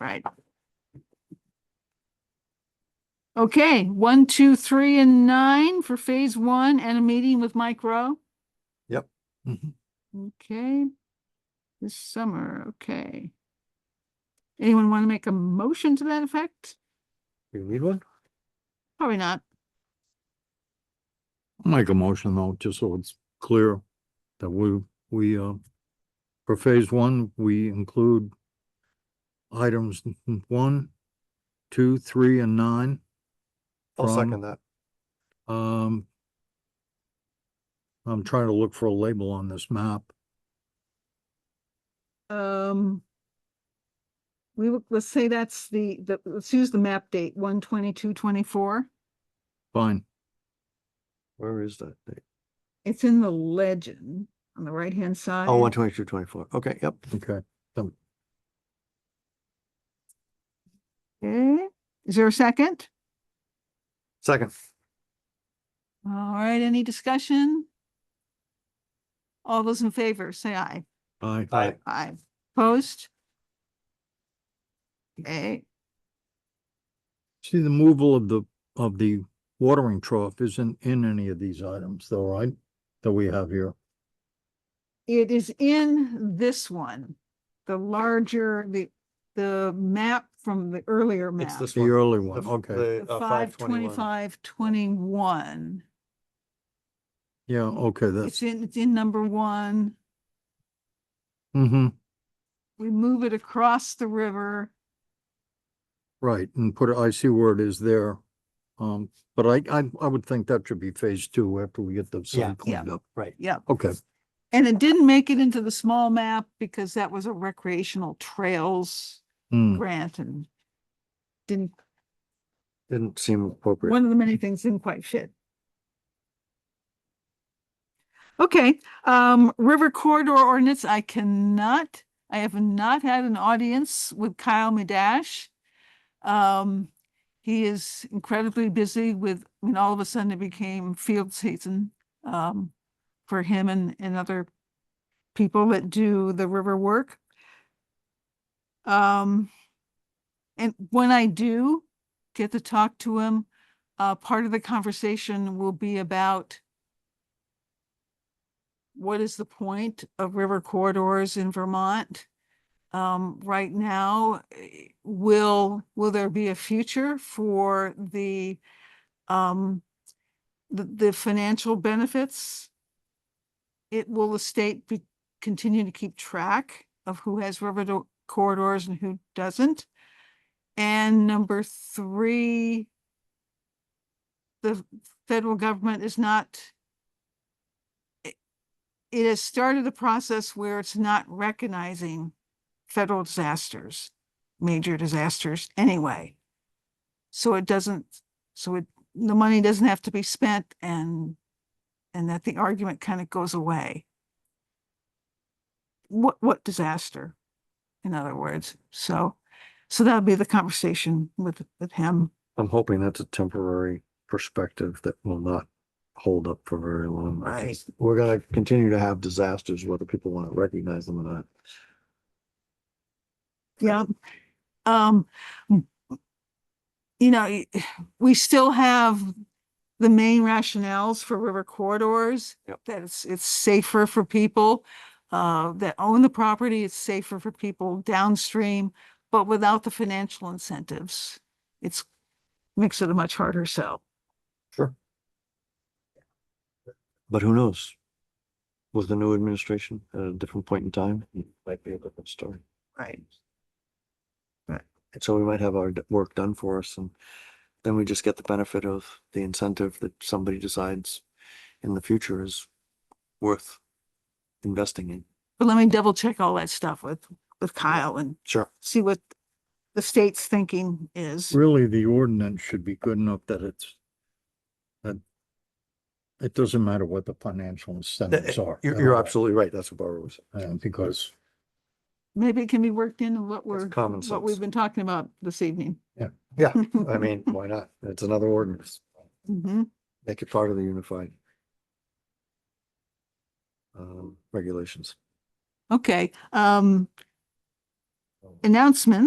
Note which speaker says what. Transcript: Speaker 1: Right. Okay, one, two, three, and nine for phase one and a meeting with Mike Rowe.
Speaker 2: Mhm.
Speaker 1: Okay. This summer, okay. Anyone want to make a motion to that effect?
Speaker 2: You need one?
Speaker 1: Probably not.
Speaker 2: I'll Make a motion though, just so it's clear that we, we, uh, for phase one, we include items n- one, two, three, and nine,
Speaker 3: I'll
Speaker 2: from-
Speaker 3: second that.
Speaker 2: um. I'm trying to look for a label on this map.
Speaker 1: Um. We, will- let's say that's the, the, let's use the map date, one twenty-two, twenty-four.
Speaker 2: Fine,
Speaker 3: Where is that? thing?
Speaker 1: It's in the legend on the right-hand side.
Speaker 3: Oh, one twenty-two, twenty-four. Okay, yep.
Speaker 2: okay.
Speaker 1: Okay, is there a second?
Speaker 3: Second.
Speaker 1: All right, any discussion? All those in favor, say aye.
Speaker 2: Aye.
Speaker 3: Aye.
Speaker 1: Aye. Opposed? Okay,
Speaker 2: See, the removal of the, of the watering trough isn't in any of these items though, right? That we have here.
Speaker 1: it is in this one, the larger, the, the map from the earlier
Speaker 3: It's
Speaker 1: map.
Speaker 3: this
Speaker 2: The
Speaker 3: one.
Speaker 2: early
Speaker 3: The
Speaker 2: one,
Speaker 3: f-
Speaker 2: okay.
Speaker 3: the,
Speaker 1: The
Speaker 3: uh,
Speaker 1: five
Speaker 3: 521.
Speaker 1: twenty-five, twenty-one.
Speaker 2: Yeah, okay, that's,
Speaker 1: It's in, it's in number one.
Speaker 2: hmm
Speaker 1: We move it across the river.
Speaker 2: Right, and put, it- I see where it is there. Um, but I, I, I would think that should be phase two after we get the
Speaker 3: Yeah.
Speaker 2: site
Speaker 1: Yeah.
Speaker 2: cleaned up.
Speaker 3: Right.
Speaker 1: Yep.
Speaker 2: Okay,
Speaker 1: And it didn't make it into the small map because that was a recreational trails
Speaker 2: Hmm,
Speaker 1: grant and didn't,
Speaker 3: Didn't seem appropriate.
Speaker 1: one of the many things didn't quite fit. Okay, um, River Corridor Ordinance, I cannot, I have not had an audience with Kyle Madash. Um, he is incredibly busy with, I mean, all of a sudden it became field season, um, for him and, and other people that do the river work. Um, and when I do get to talk to him, uh, part of the conversation will be about what is the point of river corridors in Vermont? Um, right now, eh, will, will there be a future for the, um, the, the financial benefits? It, will the state be, continue to keep track of who has river do- corridors and who doesn't? And number three, the federal government is not it- it has started a process where it's not recognizing federal disasters, major disasters anyway. So it doesn't, so it, the money doesn't have to be spent and, and that the argument kind of goes away. What, what disaster, in other words? So, so that'll be the conversation with, with him.
Speaker 3: I'm hoping that's a temporary perspective that will not hold up for very long. I think We're gonna continue to have disasters, whether people want to recognize them or not.
Speaker 1: Yeah. Um, m- you know, y- we still have the main rationales for river corridors.
Speaker 3: Yep.
Speaker 1: That it's, it's safer for people, uh, that own the property, it's safer for people downstream, but without the financial incentives, it's, makes it a much harder sell.
Speaker 3: Sure. But who knows? With the new administration at a different point in time, it might be a different story.
Speaker 1: Right.
Speaker 3: And so we might have our d- work done for us and then we just get the benefit of the incentive that somebody decides in the future is worth investing in.
Speaker 1: But let me double check all that stuff with, with Kyle and
Speaker 3: Sure.
Speaker 1: see what the state's thinking is.
Speaker 2: really, the ordinance should be good enough that it's that it doesn't matter what the financial incentives are.
Speaker 3: eh, You're,
Speaker 2: at
Speaker 3: you're
Speaker 2: all,
Speaker 3: absolutely right. That's what Barbara was.
Speaker 2: uh, Because,
Speaker 1: Maybe it can be worked into what we're,
Speaker 3: common
Speaker 1: what we've
Speaker 3: sense.
Speaker 1: been talking about this evening.
Speaker 2: Yeah.
Speaker 3: Yeah, I mean, why not? It's another ordinance.
Speaker 1: Mhm.
Speaker 3: Make it part of the unified um, regulations.
Speaker 1: Okay, um, announcements.